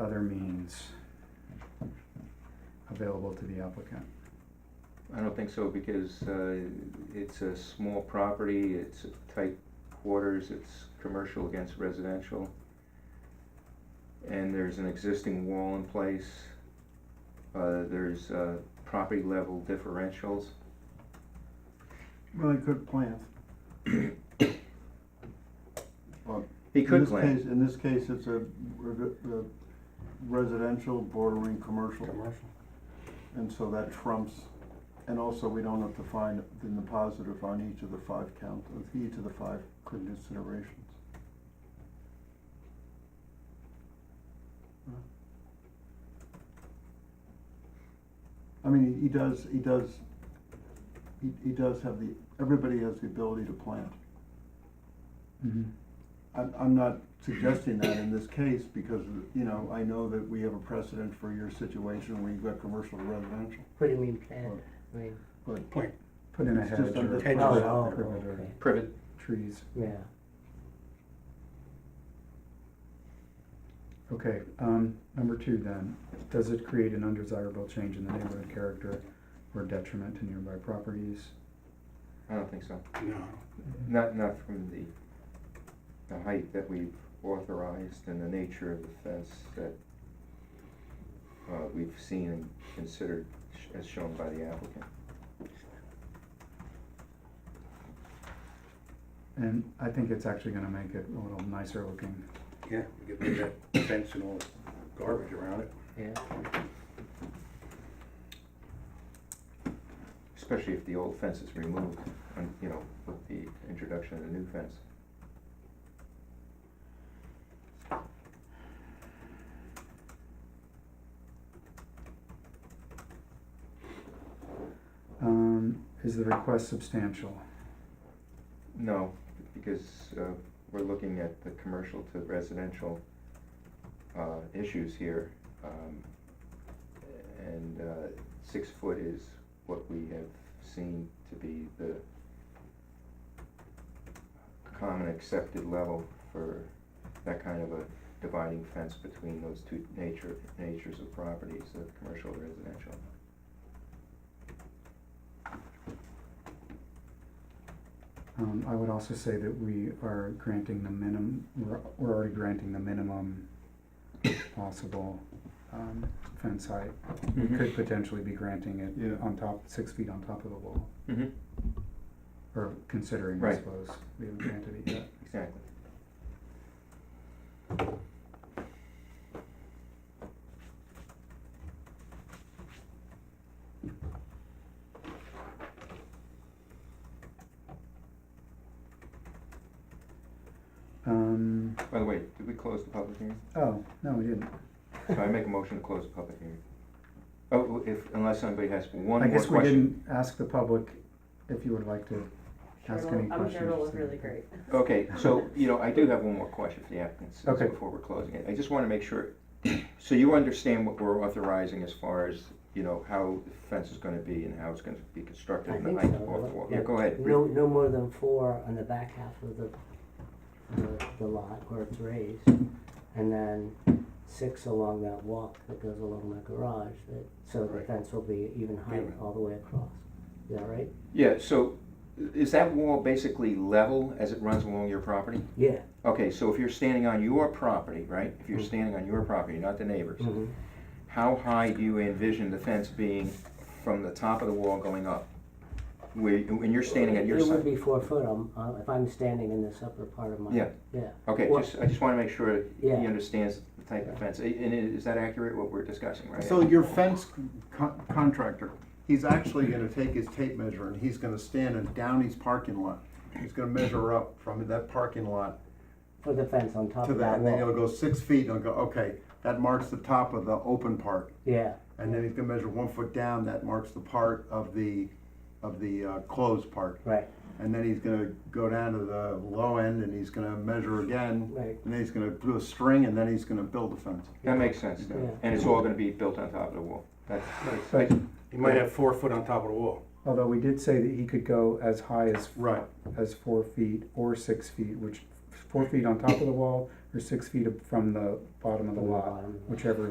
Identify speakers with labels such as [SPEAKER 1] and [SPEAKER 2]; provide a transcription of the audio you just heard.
[SPEAKER 1] other means available to the applicant?
[SPEAKER 2] I don't think so because uh, it's a small property, it's tight quarters, it's commercial against residential. And there's an existing wall in place. Uh, There's uh, property level differentials.
[SPEAKER 3] Really good plant.
[SPEAKER 2] He
[SPEAKER 3] In
[SPEAKER 2] could
[SPEAKER 3] this
[SPEAKER 2] claim,
[SPEAKER 3] case- In this case, it's a re- uh, residential bordering commercial,
[SPEAKER 4] Commercial.
[SPEAKER 3] and so that trumps. And also, we don't have to find in the positive on each of the five count, of each of the five considerations. I mean, he does, he does, he, he does have the, everybody has the ability to plant. I'm, I'm not suggesting that in this case because, you know, I know that we have a precedent for your situation where you've got commercial to residential.
[SPEAKER 4] What do you mean plant?
[SPEAKER 3] Or-
[SPEAKER 4] I mean,
[SPEAKER 3] But
[SPEAKER 4] Plant.
[SPEAKER 1] Put in a
[SPEAKER 3] It's just
[SPEAKER 1] hedge or
[SPEAKER 3] under-
[SPEAKER 1] a
[SPEAKER 3] Hedge.
[SPEAKER 1] privet-
[SPEAKER 4] Oh, oh,
[SPEAKER 1] privet or
[SPEAKER 4] okay.
[SPEAKER 2] privet,
[SPEAKER 1] trees.
[SPEAKER 4] yeah.
[SPEAKER 1] Okay, um, number two then, does it create an undesirable change in the neighborhood character or detriment to nearby properties?
[SPEAKER 2] I don't think so.
[SPEAKER 5] No,
[SPEAKER 2] Not, not from the, the height that we've authorized and the nature of the fence that uh, we've seen and considered sh- as shown by the applicant.
[SPEAKER 1] And I think it's actually gonna make it a little nicer looking.
[SPEAKER 5] yeah, get rid of that fence and all the garbage around it.
[SPEAKER 4] Yeah,
[SPEAKER 2] Especially if the old fence is removed, and, you know, with the introduction of the new fence.
[SPEAKER 1] Um, is the request substantial?
[SPEAKER 2] No, because uh, we're looking at the commercial to residential uh, issues here. um, And uh, six foot is what we have seen to be the common accepted level for that kind of a dividing fence between those two nature, natures of properties, the commercial and residential.
[SPEAKER 1] Um, I would also say that we are granting the minimum, we're, we're already granting the minimum possible, um, fence height. We could
[SPEAKER 2] Mm-hmm.
[SPEAKER 1] potentially be granting
[SPEAKER 3] Yeah.
[SPEAKER 1] it on top, six feet on top of the wall,
[SPEAKER 2] Mhm,
[SPEAKER 1] or considering, I
[SPEAKER 2] Right.
[SPEAKER 1] suppose. We haven't granted it yet.
[SPEAKER 2] Exactly.
[SPEAKER 1] Um,
[SPEAKER 2] By the way, did we close the public hearing?
[SPEAKER 1] oh, no, we didn't.
[SPEAKER 2] So I make a motion to close the public hearing. Oh, if, unless somebody has one
[SPEAKER 1] I
[SPEAKER 2] more
[SPEAKER 1] guess we
[SPEAKER 2] question.
[SPEAKER 1] didn't ask the public if you would like to ask
[SPEAKER 6] Cheryl-
[SPEAKER 1] any questions.
[SPEAKER 6] I'm sure it was really great.
[SPEAKER 2] Okay, so, you know, I do have one more question for the applicants
[SPEAKER 1] Okay.
[SPEAKER 2] before we're closing it. I just wanna make sure, so you understand what we're authorizing as far as, you know, how the fence is gonna be and how it's gonna be constructed
[SPEAKER 4] I
[SPEAKER 2] and the
[SPEAKER 4] think
[SPEAKER 2] height
[SPEAKER 4] so,
[SPEAKER 2] of the wall.
[SPEAKER 4] yeah.
[SPEAKER 2] Yeah, go ahead.
[SPEAKER 4] no, no more than four on the back half of the, the, the lot where it's raised. And then six along that walk that goes along my garage, that, so the
[SPEAKER 5] Right.
[SPEAKER 4] fence will be even higher
[SPEAKER 5] Even.
[SPEAKER 4] all the way across. Is that right?
[SPEAKER 2] Yeah, so is that wall basically level as it runs along your property?
[SPEAKER 4] Yeah.
[SPEAKER 2] Okay, so if you're standing on your property, right? If
[SPEAKER 1] Mm-hmm.
[SPEAKER 2] you're
[SPEAKER 4] Mhm.
[SPEAKER 2] standing on your property, not the neighbor's.
[SPEAKER 4] Mhm.
[SPEAKER 2] How high do you envision the fence being from the top of the wall going up? Where, when you're standing at your
[SPEAKER 4] It would
[SPEAKER 2] side?
[SPEAKER 4] be four foot, um, uh, if I'm standing in this upper part of my.
[SPEAKER 2] Yeah.
[SPEAKER 4] Yeah,
[SPEAKER 2] Okay,
[SPEAKER 4] Well-
[SPEAKER 2] just, I just wanna make sure he
[SPEAKER 4] Yeah.
[SPEAKER 2] understands the type of fence. I- And i- is that accurate, what we're discussing, right?
[SPEAKER 3] So your fence con- contractor, he's actually gonna take his tape measure and he's gonna stand in Downey's parking lot. He's gonna measure up from that parking lot
[SPEAKER 4] for the fence on top
[SPEAKER 3] to
[SPEAKER 4] of that
[SPEAKER 3] that, and
[SPEAKER 4] wall.
[SPEAKER 3] then he'll go six feet and he'll go, okay, that marks the top of the open part.
[SPEAKER 4] Yeah,
[SPEAKER 3] And then he's gonna measure one foot down, that marks the part of the, of the uh, closed part.
[SPEAKER 4] right,
[SPEAKER 3] And then he's gonna go down to the low end and he's gonna measure again.
[SPEAKER 4] Right.
[SPEAKER 3] And then he's gonna do a string and then he's gonna build a fence.
[SPEAKER 2] That makes sense, then.
[SPEAKER 4] Yeah.
[SPEAKER 2] and it's all gonna be built on top of the wall. That's,
[SPEAKER 1] But,
[SPEAKER 5] You might have four foot on top of the wall.
[SPEAKER 1] although we did say that he could go as high as,
[SPEAKER 3] Right.
[SPEAKER 1] as four feet or six feet, which f-
[SPEAKER 4] four feet on top of the wall or six feet from the bottom of the
[SPEAKER 1] From the
[SPEAKER 4] lot,
[SPEAKER 1] bottom of the lot.
[SPEAKER 4] whichever